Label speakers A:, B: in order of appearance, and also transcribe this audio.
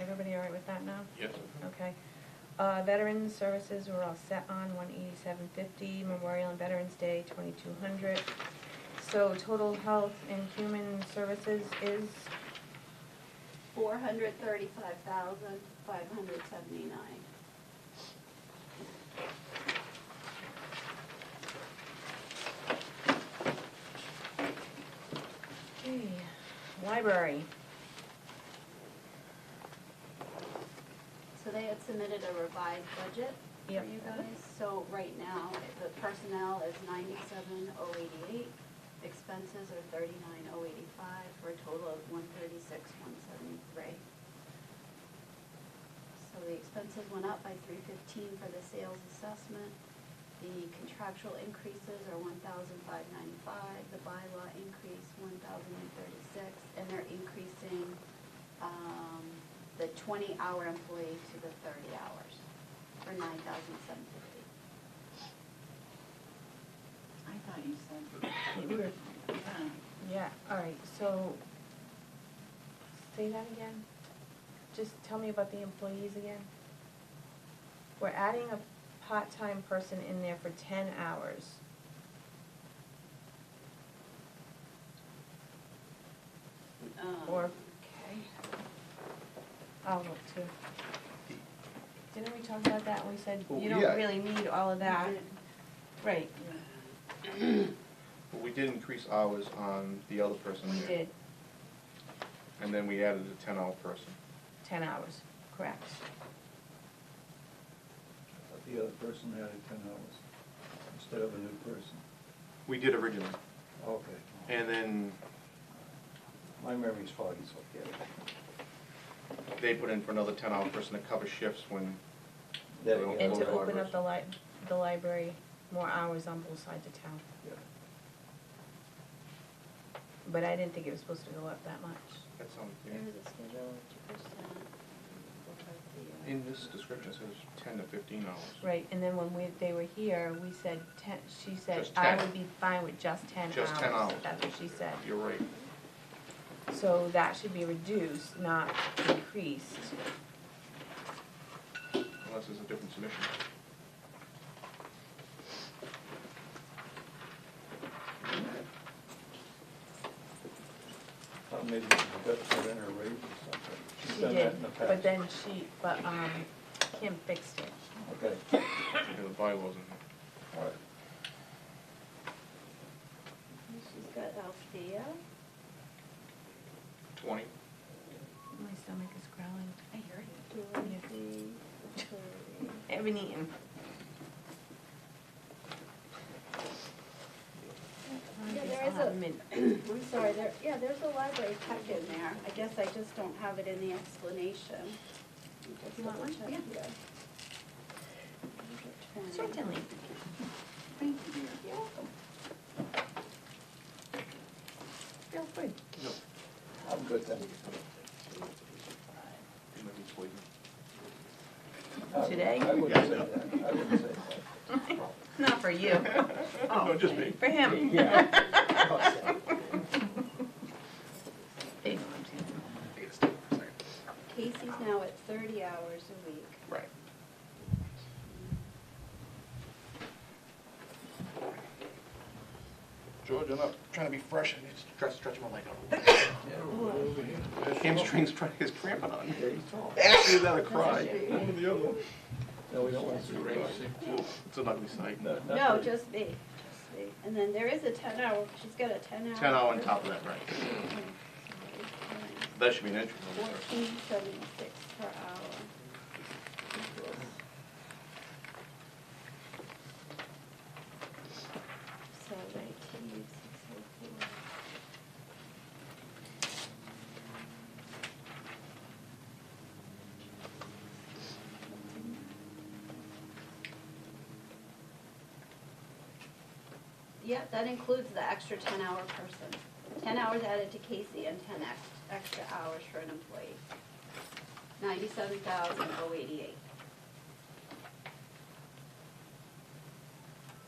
A: Everybody all right with that now?
B: Yes.
A: Okay. Uh, Veterans Services, we're all set on one eighty-seven fifty, Memorial and Veterans Day, twenty-two hundred. So total health and human services is,
C: Four hundred thirty-five thousand, five hundred seventy-nine.
A: okay, library.
C: So they had submitted a revised budget for
A: Yep.
C: you guys. So right now, the personnel is ninety-seven oh eighty-eight, expenses are thirty-nine oh eighty-five, for a total of one thirty-six one seventy-three. So the expenses went up by three fifteen for the sales assessment. The contractual increases are one thousand five ninety-five, the bylaw increase one thousand and thirty-six, and they're increasing, um, the twenty-hour employee to the thirty hours for nine thousand seven fifty.
D: I thought you said you were fine.
A: Yeah, all right, so, say that again. Just tell me about the employees again. We're adding a part-time person in there for ten hours.
C: Um,
A: Or-
C: Okay.
A: I'll look too. Didn't we talk about that when we said
B: Well,
A: you
B: yeah.
A: don't really need all of that? Right,
B: But we did increase hours on the other person
A: we
B: there.
A: did,
B: And then we added a ten-hour person.
A: ten hours, correct.
E: But the other person added ten hours instead of a new person.
B: We did originally.
E: Okay.
B: And then
E: My memory's foggy, so I get it.
B: they put in for another ten-hour person to cover shifts when.
E: There
B: we
E: you
B: don't
E: go.
A: And
B: close
A: to
B: the
A: open up
B: libraries.
A: the li- the library, more hours on both sides of town.
E: Yeah.
A: But I didn't think it was supposed to go up that much.
B: That sounds,
C: There
B: yeah.
C: is a schedule, two percent. Look at the, uh,
B: In this description, it says ten to fifteen hours.
A: Right, and then when we, they were here, we said ten, she said,
B: Just
A: I
B: 10.
A: would be fine with just ten hours.
B: Just 10 hours.
A: That's what she said.
B: You're right.
A: So that should be reduced, not increased.
B: Unless there's a different submission.
E: Thought maybe she got put in her raise or something. She's
A: She
E: done
A: did,
E: that in the past.
A: but then she, but, um, Kim fixed it.
E: Okay,
B: You know, the bylaws in here.
E: all right.
C: She's got Althea.
B: Twenty.
A: My stomach is growling.
D: I hear you.
C: Dorothy, Hillary.
A: Haven't eaten.
C: Yeah, there is a, I'm sorry, there, yeah, there's a library tech in there. I guess I just don't have it in the explanation. Let me just
D: You want one?
C: double check
D: Yeah.
C: here. Twenty.
A: Certainly.
D: Thank you, dear.
C: You're welcome.
A: Feel free.
E: I'm good then.
B: You might be sleeping.
E: I would-
A: Today?
E: I would say that, I would say that.
A: Not for you. Oh.
B: No, just me.
A: For him.
E: Yeah.
A: They know what I'm saying.
B: Take a step for a second.
C: Casey's now at thirty hours a week.
B: Right. George, I'm not trying to be fresh, I just try to stretch my leg out. Hamstring's trying, is cramping on.
E: Yeah, he's tall.
B: Actually, that a cry.
E: No, we don't want to see raise.
B: It's an ugly sight.
E: No, not
C: No,
E: really.
C: just me, just me. And then there is a ten hour, she's got a ten hour.
B: Ten hour on top of that, right. That should be an entry level person.
C: Fourteen seventy-six per hour. So nineteen, six oh four. Yeah, that includes the extra ten hour person. Ten hours added to Casey and ten ex- extra hours for an employee. Ninety-seven thousand oh eighty-eight.